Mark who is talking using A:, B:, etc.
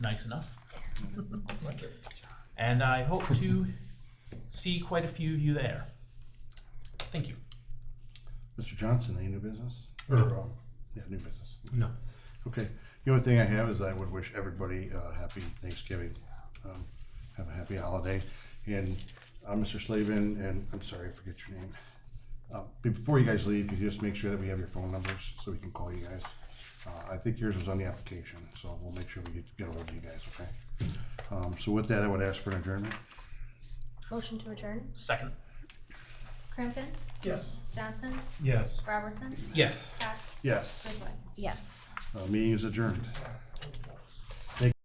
A: nice enough. and I hope to see quite a few of you there. Thank you.
B: Mr. Johnson, any new business? Or,
C: No.
B: um, yeah, new business.
C: No.
B: Okay. The only thing I have is I would wish everybody uh, happy Thanksgiving. Um, have a happy holiday. And uh, Mr. Slavin, and I'm sorry, I forget your name. Uh, before you guys leave, could you just make sure that we have your phone numbers so we can call you guys? Uh, I think yours was on the application, so we'll make sure we get, get hold of you guys, okay? Um, so with that, I would ask for an adjournment.
D: Motion to adjourn.
A: Second.
E: Crampton,
C: Yes.
E: Johnson,
C: Yes.
E: Robertson,
A: Yes.
E: Cox,
B: Yes,
E: Griswold.
D: Yes.
B: uh, meeting is adjourned.